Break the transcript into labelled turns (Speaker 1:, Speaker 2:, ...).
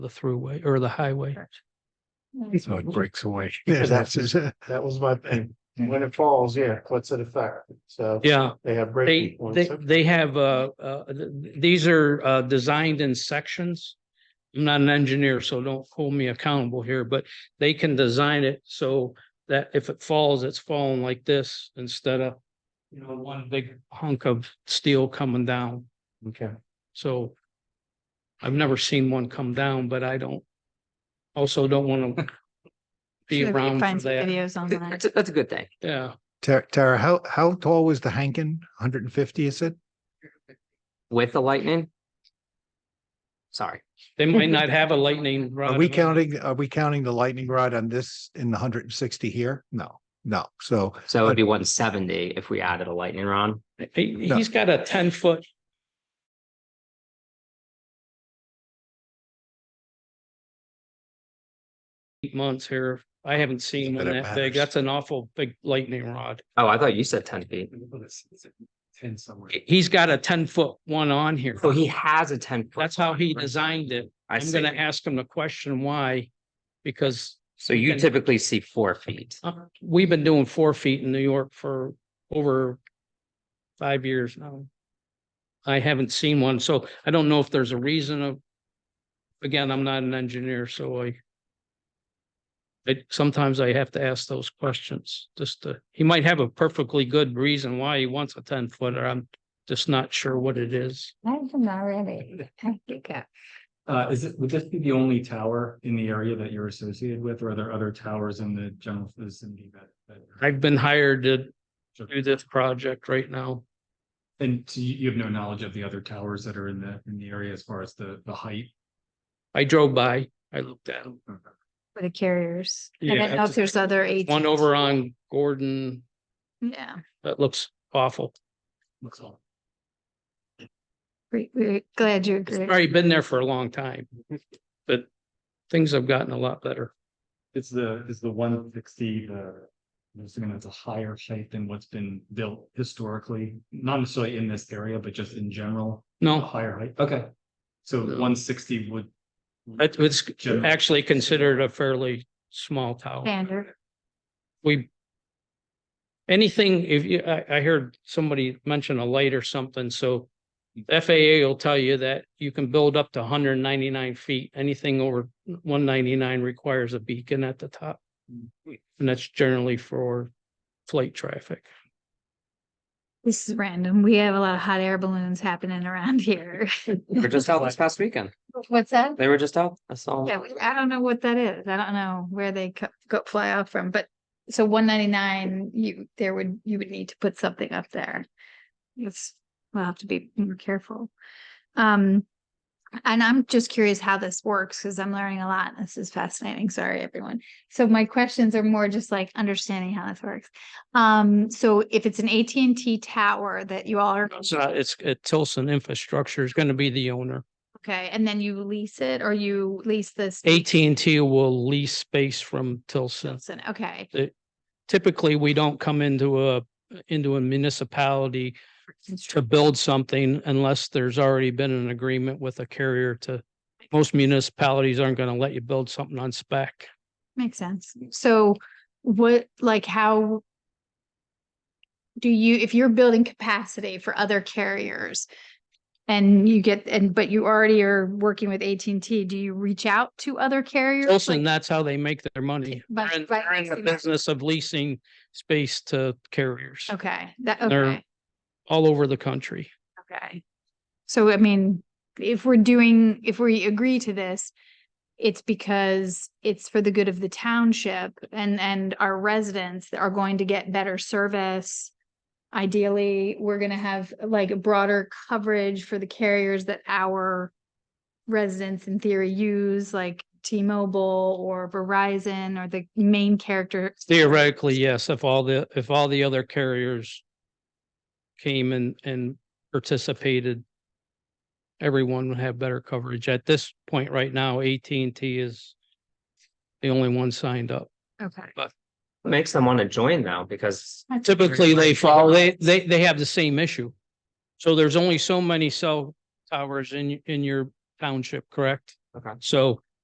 Speaker 1: the throughway or the highway.
Speaker 2: Mm.
Speaker 3: So it breaks away.
Speaker 4: Mm-hmm. Yeah,
Speaker 3: That's
Speaker 4: that's,
Speaker 3: his,
Speaker 4: that was my, and when it falls, yeah, what's it affect? So
Speaker 1: Yeah,
Speaker 4: they have breaking
Speaker 1: they, they,
Speaker 4: points.
Speaker 1: they have, uh, uh, th- th- these are, uh, designed in sections. I'm not an engineer, so don't hold me accountable here, but they can design it so that if it falls, it's falling like this instead of, you know, one big hunk of steel coming down.
Speaker 4: Okay.
Speaker 1: So I've never seen one come down, but I don't, also don't want to be around for
Speaker 2: Find some
Speaker 1: that.
Speaker 2: videos on that.
Speaker 5: That's, a- that's a good thing.
Speaker 1: Yeah,
Speaker 3: Tara- Tara, how, how tall was the Hankin? Hundred and fifty, is it?
Speaker 5: With the lightning? Sorry,
Speaker 1: they might not have a lightning rod.
Speaker 3: Are
Speaker 1: on
Speaker 3: we
Speaker 1: it.
Speaker 3: counting, are we counting the lightning rod on this in the hundred and sixty here? No, no. So
Speaker 5: so it'd be one seventy if we added a lightning rod.
Speaker 1: He,
Speaker 3: No.
Speaker 1: he's got a ten foot. Eight months here. I haven't seen
Speaker 3: But
Speaker 1: one
Speaker 3: it
Speaker 1: that big.
Speaker 3: matters.
Speaker 1: That's an awful big lightning rod.
Speaker 5: Oh, I thought you said ten feet.
Speaker 4: Ten somewhere.
Speaker 1: He's got a ten foot one on here.
Speaker 5: So he has a ten. foot
Speaker 1: That's how he
Speaker 5: Oh, right?
Speaker 1: designed it.
Speaker 5: I
Speaker 1: I'm gonna
Speaker 5: see.
Speaker 1: ask him the question why. Because
Speaker 5: So you typically see four feet.
Speaker 1: uh, we've been doing four feet in New York for over five years now. I haven't seen one, so I don't know if there's a reason of, again, I'm not an engineer, so I I sometimes I have to ask those questions, just to, he might have a perfectly good reason why he wants a ten footer. I'm just not sure what it is.
Speaker 2: I'm already.
Speaker 6: Uh, is it, would this be the only tower in the area that you're associated with, or are there other towers in the general vicinity that? that you're-
Speaker 1: I've been hired to do this project right now.
Speaker 6: And so you, you have no knowledge of the other towers that are in the, in the area as far as the, the height?
Speaker 1: I drove by, I looked at him.
Speaker 2: For the carriers. I
Speaker 1: Yeah,
Speaker 2: don't know if there's other eight.
Speaker 1: One over on Gordon,
Speaker 2: Yeah,
Speaker 1: that looks awful.
Speaker 6: Looks all.
Speaker 2: we, we're glad you
Speaker 1: It's
Speaker 2: agree.
Speaker 1: already been there for a long time, but things have gotten a lot better.
Speaker 6: It's the, is the one sixty, the, I'm assuming that's a higher height than what's been built historically, not necessarily in this area, but just in general, a
Speaker 1: No,
Speaker 6: higher height, okay. So
Speaker 1: No.
Speaker 6: one sixty would.
Speaker 1: it was
Speaker 6: General.
Speaker 1: actually considered a fairly small tower.
Speaker 2: Standard.
Speaker 1: We anything, if you, I, I heard somebody mention a light or something, so FAA will tell you that you can build up to hundred and ninety-nine feet. Anything over one ninety-nine requires a beacon at the top. And that's generally for flight traffic.
Speaker 2: This is random. We have a lot of hot air balloons happening around here.
Speaker 5: They were just out this past weekend.
Speaker 2: What's that?
Speaker 5: They were just out. I saw.
Speaker 2: Yeah, we- I don't know what that is. I don't know where they co- go fly off from, but so one ninety-nine, you, there would, you would need to put something up there. It's, we'll have to be more careful. Um, and I'm just curious how this works because I'm learning a lot. This is fascinating. Sorry, everyone. So my questions are more just like understanding how this works. Um, so if it's an AT&T tower that you all are,
Speaker 1: It's not, uh, it's, it- Tilson Infrastructure is going to be the owner.
Speaker 2: okay, and then you lease it or you lease this.
Speaker 1: AT&T will lease space from Tilson.
Speaker 2: Okay.
Speaker 1: Typically, we don't come into a, into a municipality to build something unless there's already been an agreement with a carrier to, most municipalities aren't going to let you build something on spec.
Speaker 2: Makes sense. So what, like how do you, if you're building capacity for other carriers and you get, and, but you already are working with AT&T, do you reach out to other carriers?
Speaker 1: Tilson,
Speaker 2: Like,
Speaker 1: that's how they make their money.
Speaker 2: By-
Speaker 1: They're in,
Speaker 2: by
Speaker 1: they're in the
Speaker 2: leasing out.
Speaker 1: business of leasing space to carriers
Speaker 2: Okay, that,
Speaker 1: they're-
Speaker 2: okay,
Speaker 1: all over the country.
Speaker 2: okay. So I mean, if we're doing, if we agree to this, it's because it's for the good of the township and, and our residents are going to get better service. ideally, we're gonna have like a broader coverage for the carriers that our residents in theory use, like T-Mobile or Verizon or the main character.
Speaker 1: Theoretically, yes, if all the, if all the other carriers came and, and participated, everyone would have better coverage. At this point right now, AT&T is the only one signed up.
Speaker 2: Okay.
Speaker 5: Makes them want to join now because
Speaker 1: Typically, they
Speaker 5: Right.
Speaker 1: follow, they, they, they have the same issue. So there's only so many cell towers in, in your township, correct?
Speaker 5: Okay.
Speaker 1: So